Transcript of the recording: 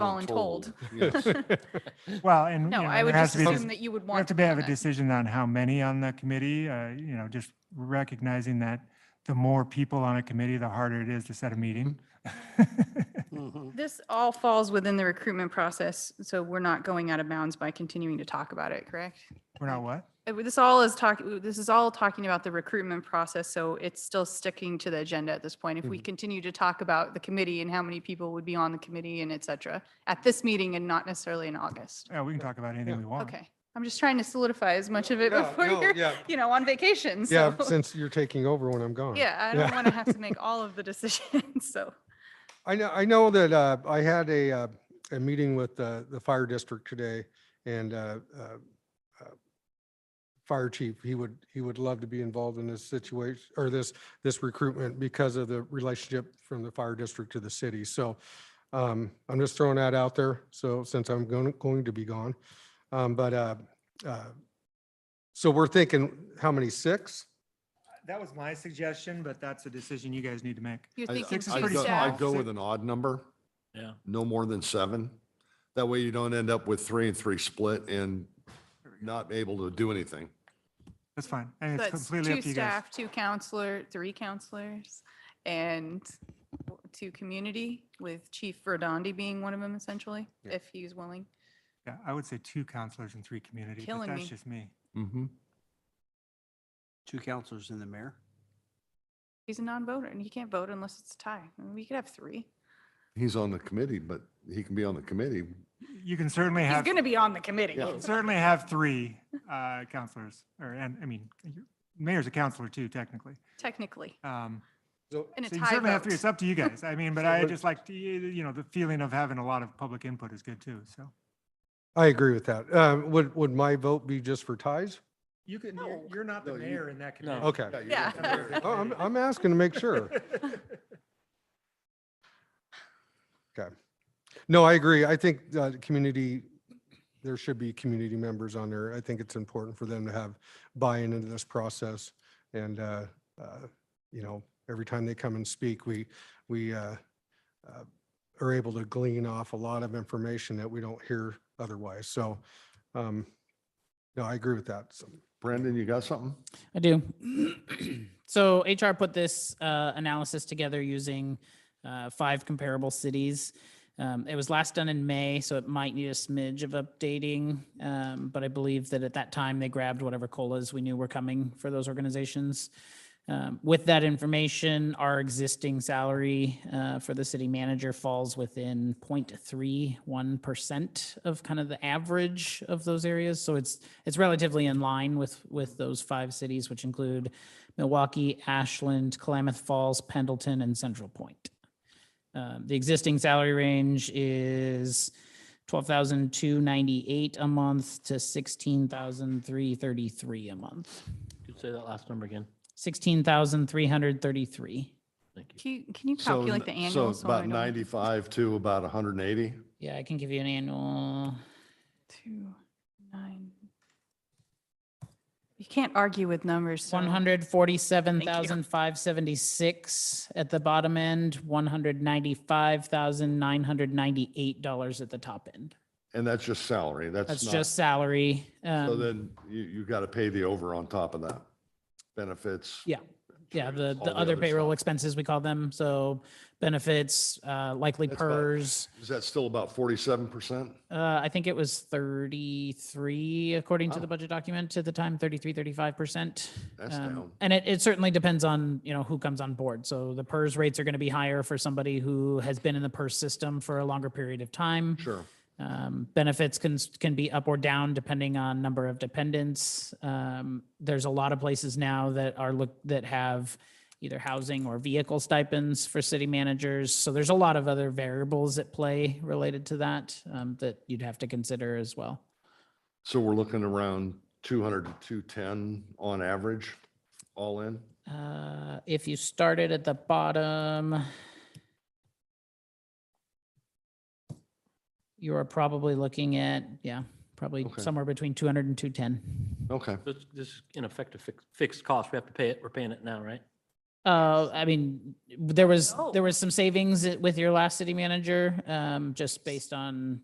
voluntold. Yes. Well, and. No, you know, I there would has just to be assume that dis- you would We want. have to them be- have on a it. decision on how many on the committee, uh, you know, just recognizing that the more people on a committee, the harder it is to set a meeting. This all falls within the recruitment process, so we're not going out of bounds by continuing to talk about it, correct? We're not what? Uh, This all is talk, this is all talking about the recruitment process, so it's still sticking to the agenda at this point. If we continue to talk about the committee and how many people would be on the committee and et cetera, at this meeting and not necessarily in August. Yeah, we can talk about anything we want. Okay, I'm just trying to solidify as much of it Yeah, before no, you're, yeah. you know, on vacation, Yeah, so. since you're taking over when I'm gone. Yeah, I don't want to have to make all of the decisions, so. I know, I know that uh, I had a, uh, a meeting with uh, the fire district today and uh, uh, uh, fire chief, he would, he would love to be involved in this situation or this, this recruitment because of the relationship from the fire district to the city. So um, I'm just throwing that out there. So since I'm going, going to be gone. Um, But uh, uh, so we're thinking, how many, six? That was my suggestion, but that's a decision you guys need to make. You're I- thinking Six is I'd pretty go- staff. I'd go with an odd number. Yeah. No more than seven. That way you don't end up with three and three split and not able to do anything. That's fine. And it's That's completely two up to you guys. staff, two counselor, three counselors, and w- two community with Chief Verdandi being one of them essentially, Yeah. if he's willing. Yeah, I would say two counselors and three community, but Killing that's me. just me. Mm-hmm. Two counselors and the mayor? He's a non-voter and he can't vote unless it's a tie. I mean, We could have three. He's on the committee, but he can be on the committee. You can certainly He's have, going to be on the committee. Yeah. certainly have three uh, counselors, or, and, I mean, you- mayor's a counselor too, technically. Technically, Um, So in a So you tie certainly have three. vote. It's up to you guys. I mean, but So I what- just like, to you you know, the feeling of having a lot of public input is good too, so. I agree with that. Uh, Would, would my vote be just for ties? You can, you're- No. you're not the No, you- mayor in that No. committee. Okay. you're Yeah. not the mayor. Oh, I'm, I'm asking to make sure. No, I agree. I think uh, the community, there should be community members on there. I think it's important for them to have buy-in into this process. And, uh, uh, you know, every time they come and speak, we, we uh, uh, are able to glean off a lot of information that we don't hear otherwise. So, um, no, I agree with that. So, Brandon, you got something? I do. so HR put this uh, analysis together using uh, five comparable cities. Um, it was last done in May, so it might need a smidge of updating. Um, but I believe that at that time they grabbed whatever colas we knew were coming for those organizations. Um, with that information, our existing salary uh, for the city manager falls within 0.31% of kind of the average of those areas. So it's it's relatively in line with with those five cities, which include Milwaukee, Ashland, Klamath Falls, Pendleton, and Central Point. Um, the existing salary range is twelve thousand two ninety eight a month to sixteen thousand three thirty three a month. Could say that last number again. Sixteen thousand three hundred thirty three. Thank you. Can you- can you So calculate n- the annual? So I about don't- 95 to about 180. Yeah, I can give you an annual. Two, nine. You can't argue with numbers. so- One hundred forty-seven thousand five seventy-six at the bottom end, one hundred ninety-five thousand nine hundred ninety-eight dollars at the top end. And that's just salary. That's That's not- just salary. So um, then you, you got to pay the over on top of that. Benefits. Yeah. Yeah, the, all the other payroll stuff. expenses, we call them, so benefits, uh, likely That's about- PERS. Is that still about 47%? Uh, I think it was thirty-three, according to Wow. the budget document at the time, 33, 35 percent. Um, That's down. And it, it certainly depends on, you know, who comes on board. So the PERS rates are going to be higher for somebody who has been in the PERS system for a longer period of time. Sure. Um, benefits can, s- can be up or down depending on number of dependents. Um, there's a lot of places now that are look, that have either housing or vehicle stipends for city managers. So there's a lot of other variables at play related to that, um, that you'd have to consider as well. So we're looking around 200 to 210 on average, all in? Uh, if you started at the bottom, you are probably looking at, yeah, probably Okay. somewhere between 200 and 210. Okay. This, this is in effect a fixed, fixed cost. We have to pay it. We're paying it now, right? Uh, I mean, there was, No. there was some savings with your last city manager, um, just based on